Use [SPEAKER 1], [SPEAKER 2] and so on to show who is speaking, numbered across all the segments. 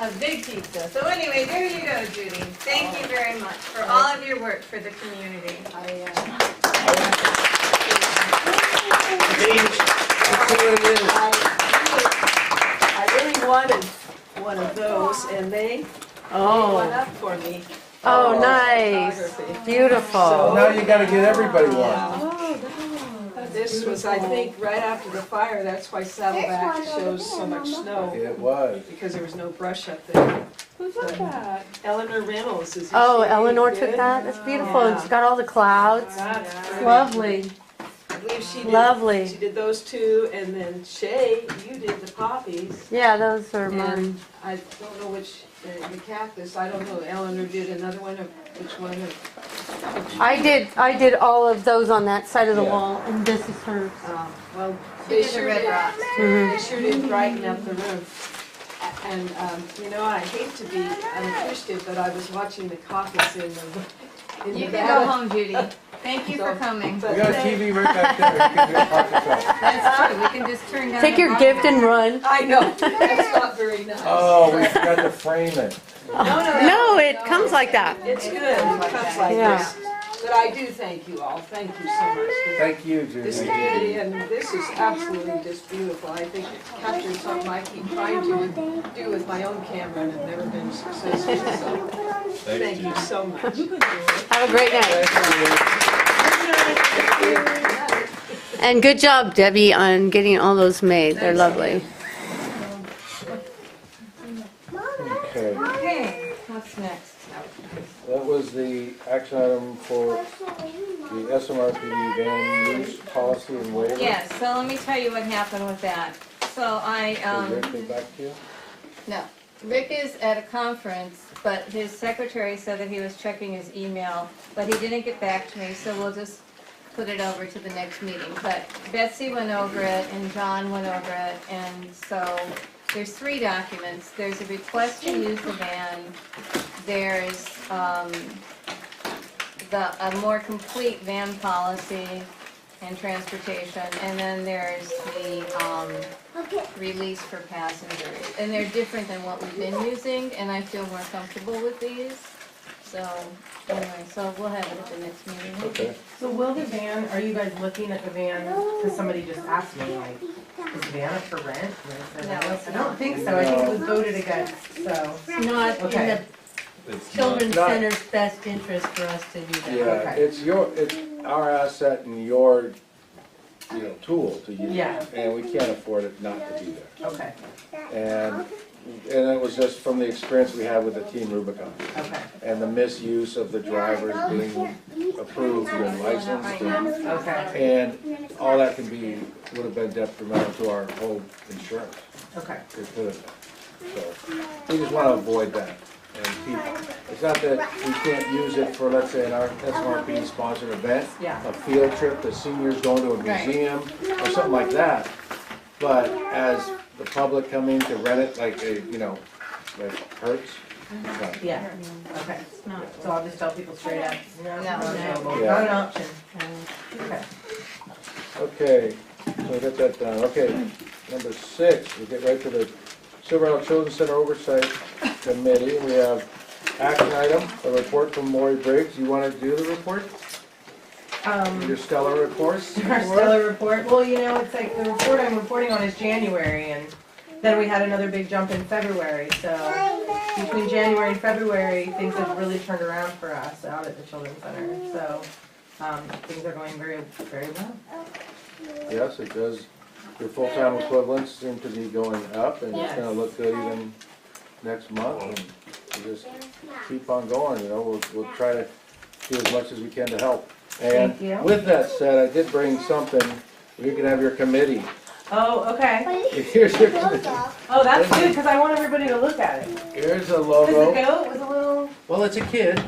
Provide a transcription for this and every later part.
[SPEAKER 1] A big pizza. So anyway, there you go, Judy. Thank you very much for all of your work for the community.
[SPEAKER 2] I, uh, I, really- I really wanted one of those, and they made one
[SPEAKER 3] Oh,
[SPEAKER 2] up for me.
[SPEAKER 3] oh, nice,
[SPEAKER 2] Photography.
[SPEAKER 3] beautiful.
[SPEAKER 4] Now you gotta get everybody one.
[SPEAKER 2] Yeah. This was, I think, right after the fire, that's why Saddleback shows so much snow,
[SPEAKER 4] It was.
[SPEAKER 2] because there was no brush up there.
[SPEAKER 5] Who took that?
[SPEAKER 2] Eleanor Reynolds is.
[SPEAKER 3] Oh, Eleanor took that, that's beautiful, and it's got all the clouds. Lovely,
[SPEAKER 2] I believe she did- She
[SPEAKER 3] lovely.
[SPEAKER 2] did those two, and then Shay, you did the poppies.
[SPEAKER 3] Yeah, those are mine.
[SPEAKER 2] And I don't know which, uh, the cactus, I don't know, Eleanor did another one of, which one of,
[SPEAKER 3] I did, I did all of those on that side of the
[SPEAKER 4] Yeah.
[SPEAKER 3] wall, and this is hers.
[SPEAKER 2] um, well,
[SPEAKER 1] She
[SPEAKER 2] they
[SPEAKER 1] did the
[SPEAKER 2] sure
[SPEAKER 1] red
[SPEAKER 2] did.
[SPEAKER 1] rocks.
[SPEAKER 3] Mhm.
[SPEAKER 2] They sure did brighten up the room. A- And, um, you know, I hate to be unappreciative, but I was watching the caucus in the, in
[SPEAKER 1] You
[SPEAKER 2] the
[SPEAKER 1] can go
[SPEAKER 2] ballot.
[SPEAKER 1] home, Judy. Thank you for coming.
[SPEAKER 4] We got a TV right back there. You can do a pocket shot.
[SPEAKER 1] That's true. We can just turn down.
[SPEAKER 3] Take
[SPEAKER 1] the
[SPEAKER 3] your
[SPEAKER 1] volume.
[SPEAKER 3] gift and run.
[SPEAKER 2] I know, that's not very nice.
[SPEAKER 4] Oh, we forgot to frame it.
[SPEAKER 3] No, it comes like that.
[SPEAKER 2] It's good, it comes like
[SPEAKER 3] Yeah.
[SPEAKER 2] this. But I do thank you all, thank you so much.
[SPEAKER 4] Thank you,
[SPEAKER 2] This
[SPEAKER 4] Judy.
[SPEAKER 2] community, and this is absolutely just beautiful. I think it captures something I keep trying to do with my own camera and have never been successful, so thank you so much.
[SPEAKER 3] Have a great night.
[SPEAKER 4] Thank you.
[SPEAKER 3] And good job, Debbie, on getting all those made. They're lovely.
[SPEAKER 4] Okay,
[SPEAKER 1] Okay, what's next?
[SPEAKER 4] that was the action item for the SMRPD van use policy and waiver.
[SPEAKER 1] Yes, so let me tell you what happened with that. So I,
[SPEAKER 4] Is
[SPEAKER 1] um,
[SPEAKER 4] everything back to you?
[SPEAKER 1] no, Rick is at a conference, but his secretary said that he was checking his email, but he didn't get back to me, so we'll just put it over to the next meeting. But Betsy went over it and John went over it, and so there's three documents. There's a request to use the van, there's, um, the, a more complete van policy and transportation, and then there's the, um, release for passengers. And they're different than what we've been using, and I feel more comfortable with these. So, anyway, so we'll have it at the next meeting.
[SPEAKER 4] Okay.
[SPEAKER 6] So will the van, are you guys looking at the van, cause somebody just asked me like, is the van up for rent? And I said, "No." I don't think so, I think it was voted against, so.
[SPEAKER 7] It's not in the
[SPEAKER 6] Okay.
[SPEAKER 7] children's
[SPEAKER 4] not-
[SPEAKER 7] center's best interest for us to do that.
[SPEAKER 4] Yeah,
[SPEAKER 6] Okay.
[SPEAKER 4] it's your, it's our asset and your, you know, tool to use.
[SPEAKER 6] Yeah.
[SPEAKER 4] And we can't afford it not to be there.
[SPEAKER 6] Okay,
[SPEAKER 4] And, and it was just from the experience we had with the Team Rubicon
[SPEAKER 6] okay,
[SPEAKER 4] and the misuse of the drivers being approved and licensed and
[SPEAKER 6] okay,
[SPEAKER 4] And all that can be, would have been detrimental to our whole insurance,
[SPEAKER 6] okay.
[SPEAKER 4] it could have been. So, we just wanna avoid that and keep, it's not that we can't use it for, let's say, an R- SMRP sponsored event.
[SPEAKER 6] Yeah.
[SPEAKER 4] A field trip, the seniors going to a
[SPEAKER 1] Right.
[SPEAKER 4] museum or something like that. But as the public coming to rent it, like, uh, you know, like Hertz. no.
[SPEAKER 6] Yeah, okay. So I'll just tell people straight up, no, it's not
[SPEAKER 1] No.
[SPEAKER 6] available,
[SPEAKER 4] Yeah.
[SPEAKER 6] not an option. Okay.
[SPEAKER 4] Okay, so we got that down. Okay, number six, we get right to the Silver Isle Children's Center Oversight Committee. We have action item, a report from Lori Briggs. You want to do the report?
[SPEAKER 6] Um,
[SPEAKER 4] Your stellar report?
[SPEAKER 6] our stellar report, well, you know, it's like the report I'm reporting on is January and then we had another big jump in February, so. between January and February, things have really turned around for us out at the children's center. So um, things are going very, very well.
[SPEAKER 4] Yes, it does. Your full-time equivalents seem to be going up and it's gonna look good even next month. and we Just keep on going, you know, we'll, we'll try to do as much as we can to help.
[SPEAKER 6] Thank you.
[SPEAKER 4] And with that said, I did bring something, you can have your committee.
[SPEAKER 6] Oh, okay.
[SPEAKER 4] Here's your committee.
[SPEAKER 6] Oh, that's good because I want everybody to look at it.
[SPEAKER 4] Here's a
[SPEAKER 6] Because the
[SPEAKER 4] logo.
[SPEAKER 6] goat was a little.
[SPEAKER 4] Well, it's a kid.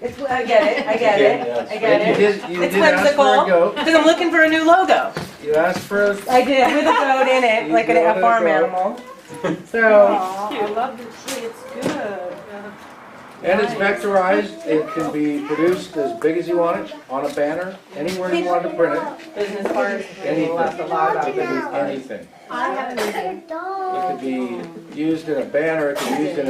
[SPEAKER 6] It's, I get it. I get it. I
[SPEAKER 4] You
[SPEAKER 6] get it.
[SPEAKER 4] did, you
[SPEAKER 6] It's
[SPEAKER 4] did ask for a
[SPEAKER 6] whimsical.
[SPEAKER 4] goat.
[SPEAKER 6] Because I'm looking for a new logo.
[SPEAKER 4] You asked for a,
[SPEAKER 6] I did with a goat in it,
[SPEAKER 4] You
[SPEAKER 6] like an,
[SPEAKER 4] got
[SPEAKER 6] a
[SPEAKER 4] a
[SPEAKER 6] farm
[SPEAKER 4] goat.
[SPEAKER 6] animal. So
[SPEAKER 2] I love the tree, it's good.
[SPEAKER 4] And it's vectorized, it can be produced as big as you want it, on a banner, anywhere you want to print it,
[SPEAKER 6] Business cards, they will laugh a lot about business cards.
[SPEAKER 4] anything. It could be used in a banner, it could be used in